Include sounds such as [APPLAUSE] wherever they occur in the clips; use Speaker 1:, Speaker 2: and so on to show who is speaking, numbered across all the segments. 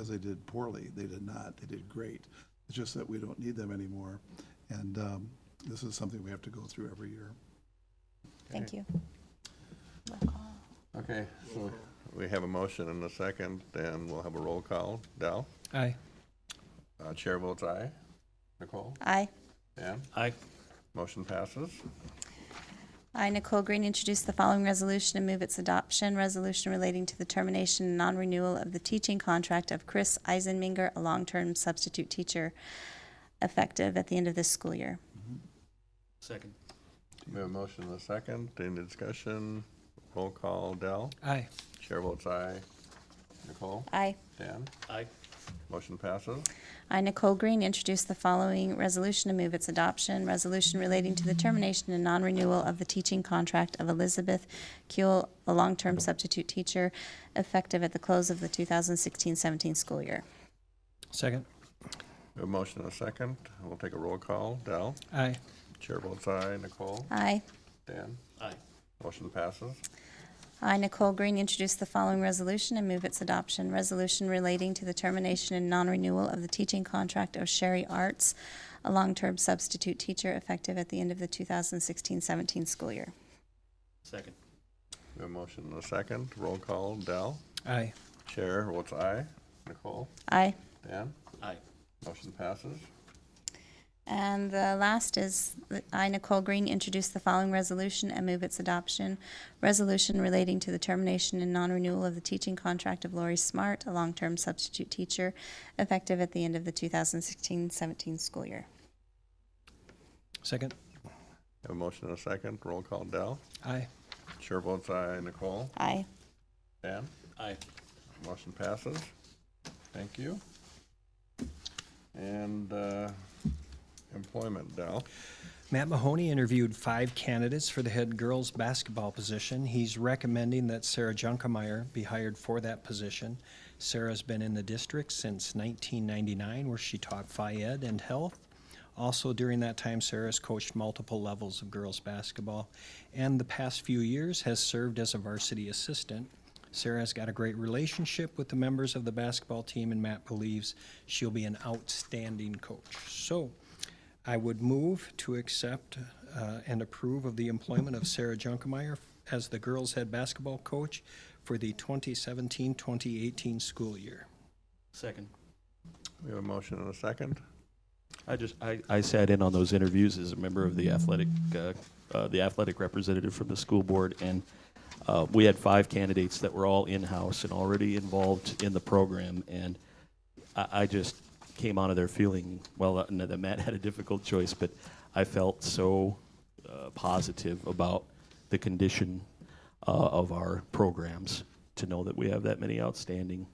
Speaker 1: as they did poorly. They did not, they did great. It's just that we don't need them anymore. And um, this is something we have to go through every year.
Speaker 2: Thank you.
Speaker 3: Okay, so we have a motion and a second, and we'll have a roll call. Dal?
Speaker 4: Aye.
Speaker 3: Uh, Chair votes aye. Nicole?
Speaker 2: Aye.
Speaker 3: Dan?
Speaker 4: Aye.
Speaker 3: Motion passes.
Speaker 2: I, Nicole Green, introduce the following resolution and move its adoption. Resolution relating to the termination and non-renewal of the teaching contract of Chris Eisenminger, a long-term substitute teacher, effective at the end of this school year.
Speaker 4: Second.
Speaker 3: We have a motion and a second. Any discussion? Roll call. Dal?
Speaker 4: Aye.
Speaker 3: Chair votes aye. Nicole?
Speaker 2: Aye.
Speaker 3: Dan?
Speaker 4: Aye.
Speaker 3: Motion passes.
Speaker 2: I, Nicole Green, introduce the following resolution and move its adoption. Resolution relating to the termination and non-renewal of the teaching contract of Elizabeth Kuehl, a long-term substitute teacher, effective at the close of the 2016-17 school year.
Speaker 4: Second.
Speaker 3: We have a motion and a second. We'll take a roll call. Dal?
Speaker 4: Aye.
Speaker 3: Chair votes aye. Nicole?
Speaker 2: Aye.
Speaker 3: Dan?
Speaker 4: Aye.
Speaker 3: Motion passes.
Speaker 2: I, Nicole Green, introduce the following resolution and move its adoption. Resolution relating to the termination and non-renewal of the teaching contract of Sherry Arts, a long-term substitute teacher effective at the end of the 2016-17 school year.
Speaker 4: Second.
Speaker 3: We have a motion and a second. Roll call. Dal?
Speaker 4: Aye.
Speaker 3: Chair votes aye. Nicole?
Speaker 2: Aye.
Speaker 3: Dan?
Speaker 4: Aye.
Speaker 3: Motion passes.
Speaker 2: And the last is, that I, Nicole Green, introduce the following resolution and move its adoption. Resolution relating to the termination and non-renewal of the teaching contract of Lori Smart, a long-term substitute teacher, effective at the end of the 2016-17 school year.
Speaker 4: Second.
Speaker 3: Have a motion and a second. Roll call, Dell.
Speaker 4: Aye.
Speaker 3: Chair votes aye. Nicole?
Speaker 2: Aye.
Speaker 3: Dan?
Speaker 4: Aye.
Speaker 3: Motion passes. Thank you. And uh, employment, Dell.
Speaker 5: Matt Mahoney interviewed five candidates for the head girls basketball position. He's recommending that Sarah Junkemeyer be hired for that position. Sarah's been in the district since 1999, where she taught Phi Ed and health. Also, during that time, Sarah's coached multiple levels of girls basketball and the past few years has served as a varsity assistant. Sarah's got a great relationship with the members of the basketball team, and Matt believes she'll be an outstanding coach. So, I would move to accept uh, and approve of the employment of Sarah Junkemeyer as the girls' head basketball coach for the 2017-2018 school year.
Speaker 4: Second.
Speaker 3: We have a motion and a second.
Speaker 6: I just I, I sat in on those interviews as a member of the athletic uh, uh, the athletic representative from the school board, and uh, we had five candidates that were all in house and already involved in the program, and I, I just came out of there feeling well uh, no, that Matt had a difficult choice, but I felt so uh, positive about the condition uh, of our programs to know that we have that many outstanding,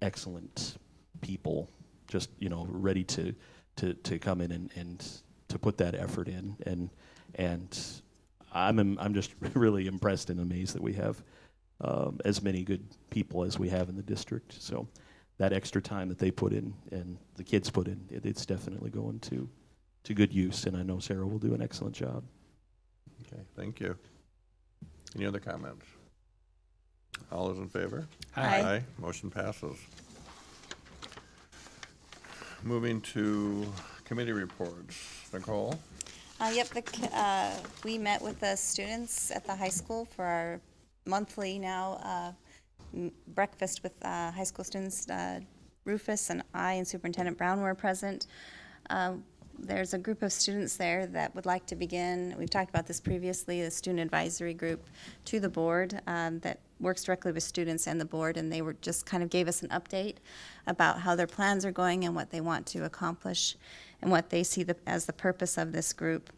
Speaker 6: excellent people just you know ready to to to come in and, and to put that effort in and and I'm im- I'm just [LAUGHS] really impressed and amazed that we have um, as many good people as we have in the district. So that extra time that they put in and the kids put in, it, it's definitely going to to good use. And I know Sarah will do an excellent job.
Speaker 3: Okay, thank you. Any other comments? All those in favor?
Speaker 2: Aye.
Speaker 3: Motion passes. Moving to committee reports. Nicole?
Speaker 2: Uh, yep, the, c- uh, we met with the students at the high school for our monthly now, uh, m- breakfast with, uh, high school students. Uh, Rufus and I and Superintendent Brown were present. Uh, There's a group of students there that would like to begin, we've talked about this previously, the student advisory group to the board, um, that works directly with students and the board, and they were, just kind of gave us an update about how their plans are going and what they want to accomplish and what they see the, as the purpose of this group.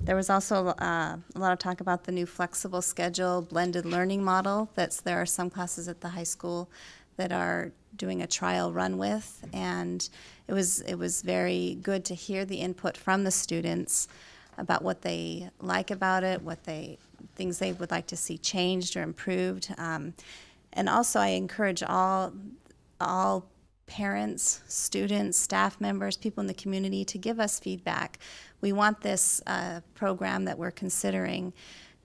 Speaker 2: There was also uh, a lot of talk about the new flexible schedule, blended learning model. That's there are some classes at the high school that are doing a trial run with, and it was it was very good to hear the input from the students about what they like about it, what they things they would like to see changed or improved. Um, and also, I encourage all all parents, students, staff members, people in the community to give us feedback. We want this uh, program that we're considering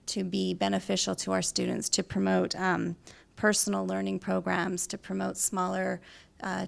Speaker 2: to be beneficial to our students, to promote um, personal learning programs, to promote smaller uh,